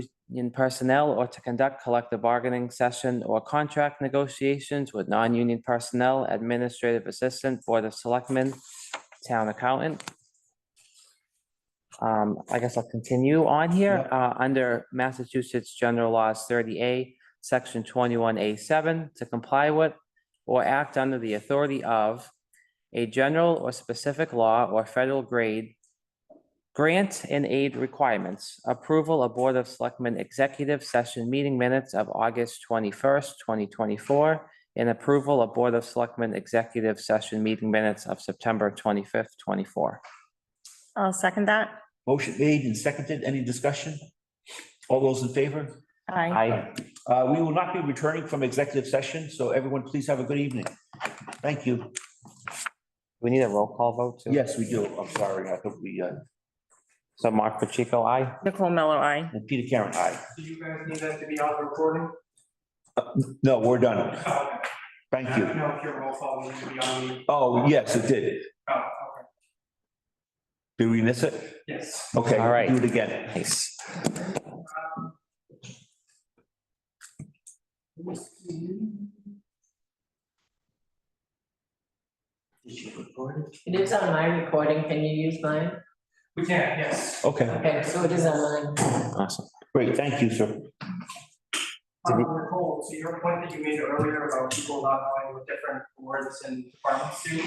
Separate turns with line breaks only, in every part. non-union personnel or to conduct collective bargaining session or contract negotiations with non-union personnel, administrative assistant, board of selectmen, town accountant. Um, I guess I'll continue on here, uh, under Massachusetts General Laws thirty A, section twenty-one A seven, to comply with or act under the authority of a general or specific law or federal grade Grant and aid requirements, approval of Board of Selectmen Executive Session Meeting Minutes of August twenty-first, twenty twenty-four, and approval of Board of Selectmen Executive Session Meeting Minutes of September twenty-fifth, twenty-four.
I'll second that.
Motion made and seconded. Any discussion? All those in favor?
Aye.
I,
Uh, We will not be returning from executive session, so everyone, please have a good evening. Thank you.
we need a roll call vote too.
Yes, we do. I'm sorry. I thought we, uh,
So Mark Pacheco, I.
Nicole Miller, aye.
and Peter Karen, aye.
Do you guys need that to be on recording?
No, we're done.
I
Thank
don't
you.
know if your roll call needs to be on the,
Oh, yes, it did.
oh, okay,
Did we miss it?
yes.
Okay.
All right.
Do it again.
Nice.
It is on my recording, can you use mine?
We can, yes.
Okay,
Okay, so it is on mine.
Awesome.
great. Thank you, sir.
Um, Nicole, to your point that you made earlier about people not knowing what different boards and departments do,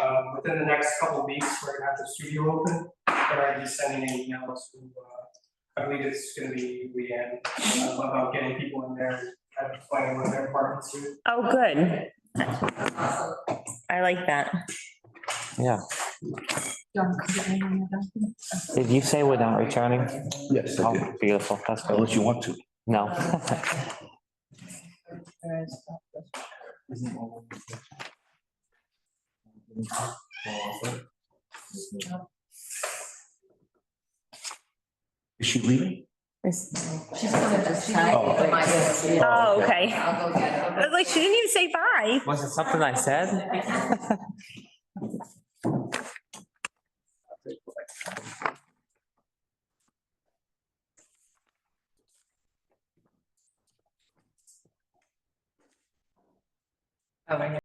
um, within the next couple of weeks, we're gonna have the studio open. But I'll be sending an email to, uh, I believe it's gonna be Leanne, uh, about getting people in there, kind of playing with their departments too.
Oh, good. I like that.
Yeah. Did you say we're not returning?
Yes, I did.
Oh, Beautiful. That's good.
Unless you want to.
No.
Is she leaving?
She's gonna just tag
Oh.
it, like, yes, yeah.
Oh, okay. I
I'll go get
was
it.
like, she didn't even say bye.
Was it something I said?
Oh, I know.